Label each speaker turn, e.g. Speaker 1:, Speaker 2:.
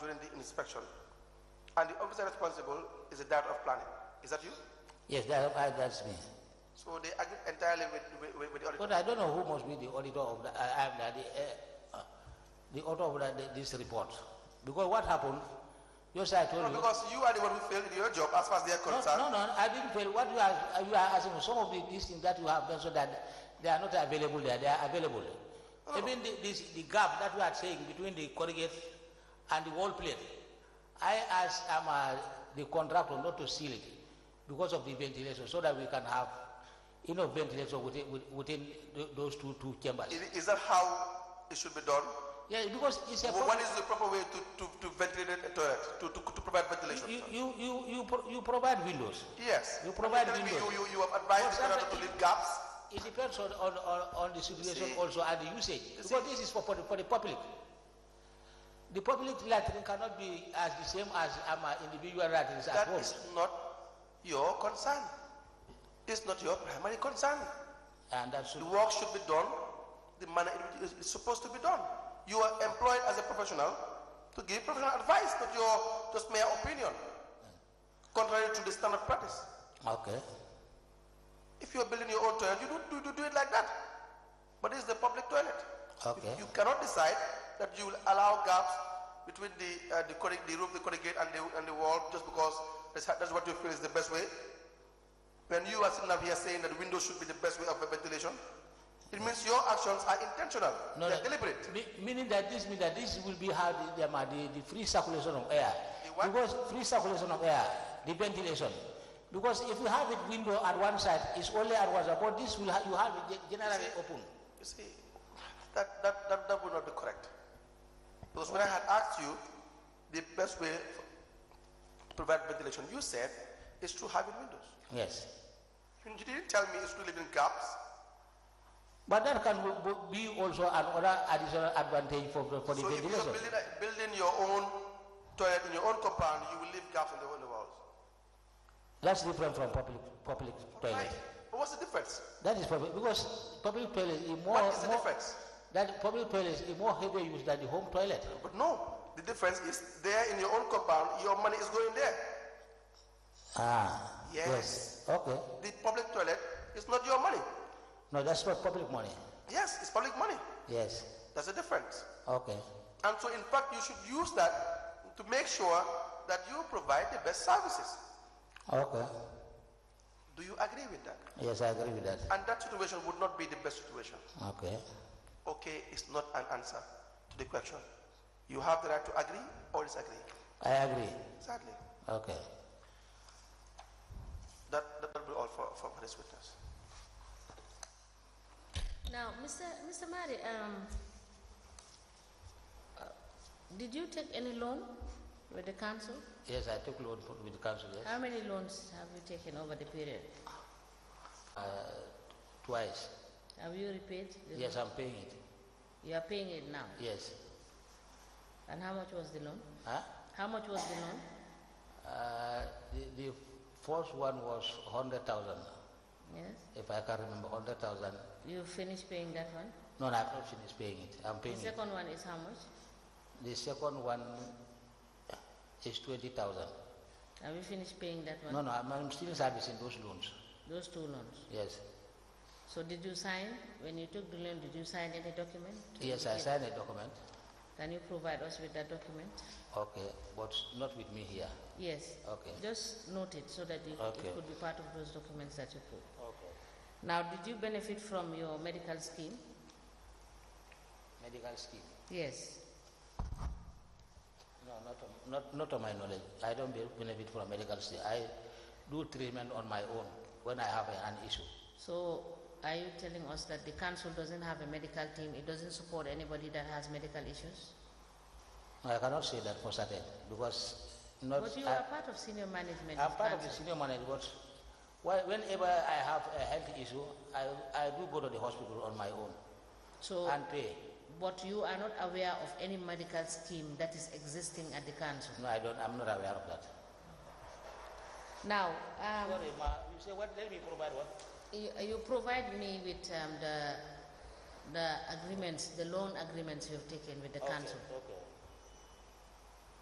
Speaker 1: during the inspection. And the officer responsible is the director of planning. Is that you?
Speaker 2: Yes, that, I- that's me.
Speaker 1: So they agree entirely with, with, with the auditor.
Speaker 2: But I don't know who must be the auditor of the, I, am the, uh, uh, the author of the, the- this report. Because what happened, just I told
Speaker 1: No,
Speaker 2: you.
Speaker 1: because you are the one who failed in your job as far as they are
Speaker 2: No,
Speaker 1: concerned.
Speaker 2: no, no, I didn't fail. What you are, you are asking, some of the, these things that you have done so that they are not available there, they are available.
Speaker 1: Oh.
Speaker 2: Even the, this, the gap that we are saying between the corrugate and the wall plate, I asked um, uh, the contractor not to seal it because of the ventilation, so that we can have enough ventilation within, within tho- those two, two chambers.
Speaker 1: Is, is that how it should be done?
Speaker 2: Yeah, because it's a
Speaker 1: Wh-
Speaker 2: problem.
Speaker 1: What is the proper way to, to, to ventilate a toilet, to, to, to provide ventilation?
Speaker 2: You, you, you, you, pro- you provide windows.
Speaker 1: yes.
Speaker 2: you provide
Speaker 1: Tell me
Speaker 2: windows.
Speaker 1: You, you, you have advised the
Speaker 2: What's
Speaker 1: contractor to
Speaker 2: happening-
Speaker 1: leave gaps.
Speaker 2: It depends on, on, on, on the
Speaker 1: see.
Speaker 2: situation also and the usage.
Speaker 1: see.
Speaker 2: Because this is for, for, the, for the public. The public lettering cannot be as the same as um, uh, individual lettering at
Speaker 1: That
Speaker 2: home.
Speaker 1: is not your concern. It's not your primary concern.
Speaker 2: And that's
Speaker 1: The work should be done the manner it is it's supposed to be done. You are employed as a professional to give professional advice, not your just mere opinion. Contrary to the standard practice.
Speaker 2: okay.
Speaker 1: If you're building your own toilet, you don't do, do, do it like that. But it's the public toilet.
Speaker 2: Okay.
Speaker 1: You, you cannot decide that you will allow gaps between the uh, the, corrig- the roof, the corrugate, and the and the wall just because that's, how- that's what you feel is the best way. When you are sitting up here saying that windows should be the best way of ventilation, it means your actions are intentional.
Speaker 2: No,
Speaker 1: They're
Speaker 2: no.
Speaker 1: deliberate.
Speaker 2: Me- meaning that this means that this will be how the, the, um, uh, the, the free circulation of air.
Speaker 1: The what?
Speaker 2: Because free circulation of air, the ventilation. Because if you have it window at one side, it's only at one side. But this will ha- you have it ge- generally
Speaker 1: See.
Speaker 2: open.
Speaker 1: You see, that, that, that, that would not be correct. Because when I had asked you the best way to provide ventilation, you said it's through having windows.
Speaker 2: Yes.
Speaker 1: You didn't tell me it's through leaving gaps.
Speaker 2: But that can w- w- be also another additional advantage for, for the
Speaker 1: So if you're
Speaker 2: ventilation.
Speaker 1: building, a- building your own toilet in your own compound, you will leave gaps in the, in the walls.
Speaker 2: That's different from public public toilet.
Speaker 1: Right. But what's the difference?
Speaker 2: That is public because public toilet is more.
Speaker 1: What is the
Speaker 2: more-
Speaker 1: difference?
Speaker 2: That public toilet is more heavy use than the home toilet.
Speaker 1: But no, the difference is there in your own compound, your money is going there.
Speaker 2: Ah.
Speaker 1: Yes.
Speaker 2: Okay.
Speaker 1: The public toilet is not your money.
Speaker 2: No, that's not public money.
Speaker 1: Yes, it's public money.
Speaker 2: Yes.
Speaker 1: That's the difference.
Speaker 2: Okay.
Speaker 1: And so, in fact, you should use that to make sure that you provide the best services.
Speaker 2: Okay.
Speaker 1: Do you agree with that?
Speaker 2: Yes, I agree with that.
Speaker 1: And that situation would not be the best situation.
Speaker 2: Okay.
Speaker 1: Okay is not an answer to the question. You have the right to agree or disagree.
Speaker 2: I agree.
Speaker 1: Sadly,
Speaker 2: Okay.
Speaker 1: that that will be all for, for for this witness.
Speaker 3: Now, Mr. Mr. Mari, um, uh, did you take any loan with the council?
Speaker 2: Yes, I took loan for, with the council yes.
Speaker 3: How many loans have you taken over the period?
Speaker 2: uh, twice.
Speaker 3: Have you repaid? the
Speaker 2: Yes,
Speaker 3: loan?
Speaker 2: I'm paying it.
Speaker 3: You are paying it now.
Speaker 2: Yes.
Speaker 3: And how much was the loan?
Speaker 2: Huh?
Speaker 3: How much was the loan?
Speaker 2: Uh, the, the first one was 100,000,
Speaker 3: Yes.
Speaker 2: if I can remember, 100,000.
Speaker 3: You finished paying that one.
Speaker 2: No, no, I've not finished paying it. I'm
Speaker 3: The
Speaker 2: paying it.
Speaker 3: second one is how much?
Speaker 2: The second one is 20,000.
Speaker 3: Have you finished paying that one?
Speaker 2: No, no, I'm, I'm still servicing those loans.
Speaker 3: Those two loans.
Speaker 2: Yes.
Speaker 3: So did you sign, when you took the loan, did you sign any document? to
Speaker 2: Yes, I
Speaker 3: indicate-
Speaker 2: signed a document.
Speaker 3: Can you provide us with that document?
Speaker 2: Okay, but not with me here.
Speaker 3: Yes.
Speaker 2: Okay.
Speaker 3: Just note it so that it,
Speaker 2: Okay.
Speaker 3: it could be part of those documents that you put.
Speaker 2: Okay.
Speaker 3: Now, did you benefit from your medical scheme?
Speaker 2: Medical scheme.
Speaker 3: Yes.
Speaker 2: No, not on, not, not on my knowledge. I don't be- benefit from medical scheme. I do treatment on my own when I have an issue.
Speaker 3: So, are you telling us that the council doesn't have a medical team? It doesn't support anybody that has medical issues?
Speaker 2: I cannot say that for certain because not.
Speaker 3: But you
Speaker 2: I-
Speaker 3: are part of senior management.
Speaker 2: Uh, I'm
Speaker 3: of
Speaker 2: part of the
Speaker 3: council.
Speaker 2: senior management. Why- Whenever I have a health issue, I, I do go to the hospital on my own
Speaker 3: So,
Speaker 2: and pay.
Speaker 3: but you are not aware of any medical scheme that is existing at the council.
Speaker 2: No, I don't, I'm not aware of that.
Speaker 3: Now, um,
Speaker 2: Sorry, ma, you say what, let me provide what?
Speaker 3: You, you provide me with um, the, the agreements, the loan agreements you've taken with the council.
Speaker 2: Okay, okay.